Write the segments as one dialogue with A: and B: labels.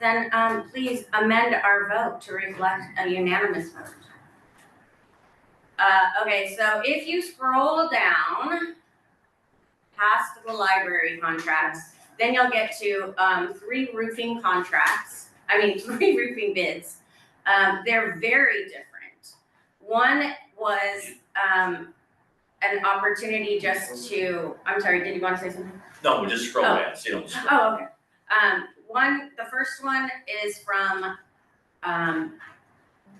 A: Then, um, please amend our vote to reflect a unanimous vote. Uh, okay, so if you scroll down past the library contracts, then you'll get to, um, three roofing contracts, I mean, three roofing bids. Um, they're very different. One was, um, an opportunity just to, I'm sorry, did you wanna say something?
B: No, we just scroll
A: Oh.
B: down, see, don't scroll.
A: Oh, okay. Um, one, the first one is from, um,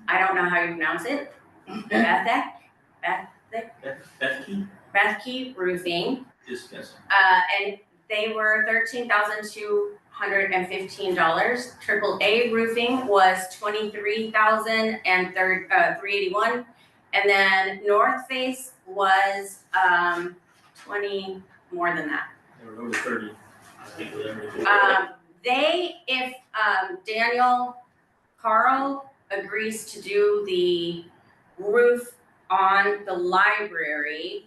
A: I don't know how you pronounce it. Bethek,
B: Bethke
A: Bethke Roofing.
B: is guessing.
A: Uh, and they were thirteen thousand two hundred and fifteen dollars. Triple A roofing was twenty-three thousand and third, uh, three eighty-one. And then North Face was, um, twenty, more than that.
C: They were over thirty, I think, with everything.
A: Um, they, if, um, Daniel Carl agrees to do the roof on the library,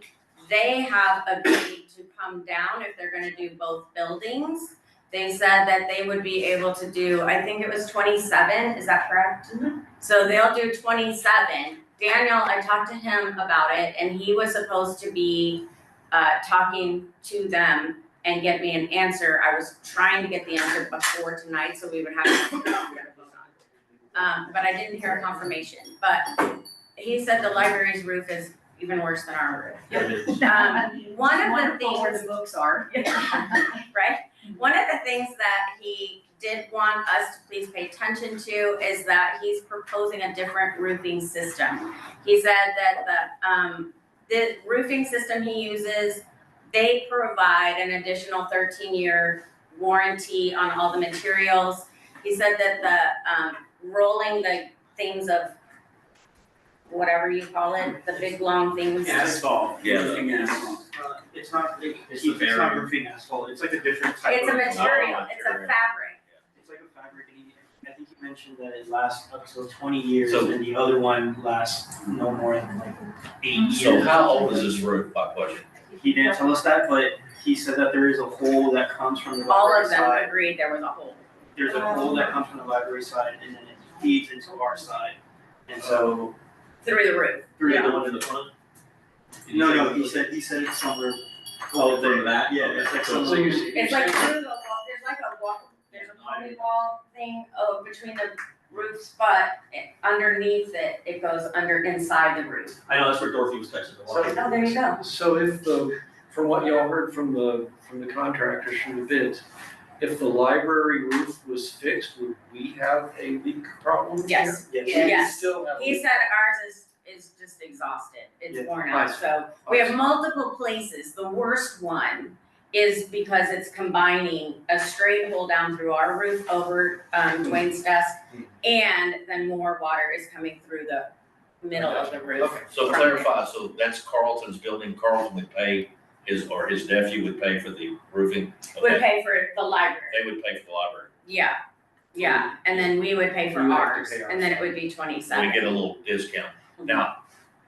A: they have agreed to come down if they're gonna do both buildings. They said that they would be able to do, I think it was twenty-seven, is that correct? So they'll do twenty-seven. Daniel, I talked to him about it and he was supposed to be, uh, talking to them and get me an answer. I was trying to get the answer before tonight, so we would have an answer to vote on. Um, but I didn't hear confirmation, but he said the library's roof is even worse than our
C: Yeah, it is.
A: roof. Um, one of the
D: Wonderful where
A: things,
D: the books are.
A: right? One of the things that he did want us to please pay attention to is that he's proposing a different roofing system. He said that the, um, the roofing system he uses, they provide an additional thirteen-year warranty on all the materials. He said that the, um, rolling the things of whatever you call it, the big long things.
E: Asphalt,
B: Yeah.
E: roofing asphalt. It's not, it-
C: It's
E: it's
C: the
E: not
C: barrier.
E: roofing asphalt, it's like a different type
A: It's a
E: of.
A: material, it's a
B: material.
A: fabric.
E: It's like a fabric, and he- I think you mentioned that it lasts up to twenty years,
B: So-
E: and the other one lasts no more than like eight years.
B: So how old is this roof, my question?
E: He didn't tell us that, but he said that there is a hole that comes from the
A: All
E: library
A: of them Oh.
E: side.
A: agreed there was a hole.
E: There's a hole that comes from the library side, and then it feeds into our side, and so.
A: Through the roof.
E: through
C: The one in the front?
E: No, no, he said, he said it's somewhere.
C: Oh, from that?
E: Yeah, it's like
C: So-
E: some.
C: so you're s-
A: It's like through the wall, there's like a wall, there's a party wall thing, oh, between the roofs, but it- underneath it, it goes under inside the roof.
C: I know, that's where Dorothy was texting.
F: So-
A: Oh, there you go.
F: So if the, from what y'all heard from the, from the contractors, from the bids, if the library roof was fixed, would we have a leak problem?
A: Yes,
E: Yes.
F: here? Would we
A: Yes.
F: still have a
A: he
F: leak?
A: said ours is, is just exhausted,
E: Yeah,
A: it's worn out,
F: nice.
A: so we have multiple places, the worst one is because it's combining a straight hole down through our roof over, um, Dwayne's desk, and then more water is coming through the middle of the roof.
B: So clarify, so that's Carlton's building, Carlton would pay, his, or his nephew would pay for the roofing?
A: would
B: Okay,
A: pay for the library,
B: They would pay for the library,
A: yeah, yeah, and then we would pay for
E: We would have to
A: ours,
E: pay
A: and then it would be twenty
B: we
A: seven.
B: get a little discount.
A: Mm-hmm.
B: Now,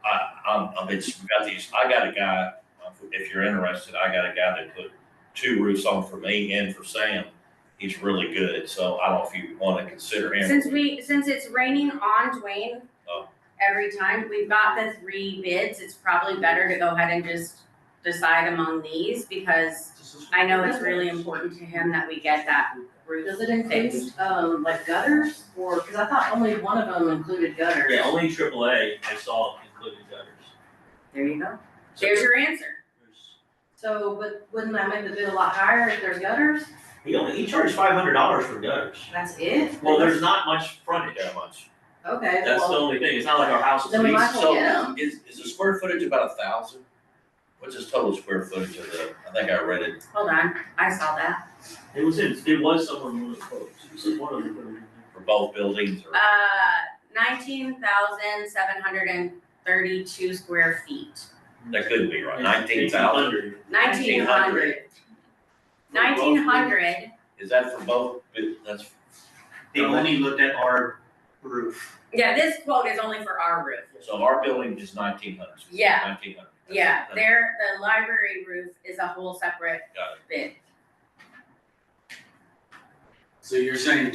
B: I, I'm, I've been, we got these, I got a guy, um, if you're interested, I got a guy that put two roofs on for me and for Sam. He's really good, so I don't know if you wanna consider him.
A: Since we, since it's raining on Dwayne
B: Oh.
A: every time, we've got the three bids, it's probably better to go ahead and just decide among these, because I know it's really important to him that we get that roof
D: Does it
A: fixed.
D: include, um, like gutters or, cause I thought only one of them included gutters.
C: Yeah, only triple A I saw included gutters.
D: There you go.
C: So
A: There's your answer.
C: there's-
D: So, but wouldn't that make the bid a lot higher if there's gutters?
C: He only, he charged five hundred dollars for gutters.
D: That's it?
C: Well, there's not much frontage,
B: That much.
D: Okay,
C: that's the
D: well,
C: only thing, it's not like our house is.
D: then we
C: big.
D: might as well get 'em.
B: So is, is the square footage about a thousand? What's his total square footage of the, I think I read it
A: Hold on, I saw that.
C: It was in, it was somewhere in one of the quotes, it was in one of them.
B: for both buildings or?
A: Uh, nineteen thousand seven hundred and thirty-two square feet.
B: That could be right, nineteen thousand,
A: Nineteen
B: 1900.
A: hundred. Nineteen hundred,
B: is that for both, bu- that's,
E: They only looked at our roof.
A: yeah, this quote is only for our roof.
B: so our building is nineteen hundred?
A: Yeah.
B: Nineteen hundred.
A: Yeah, their, the library roof is a whole separate
B: Got
A: bid.
G: So you're saying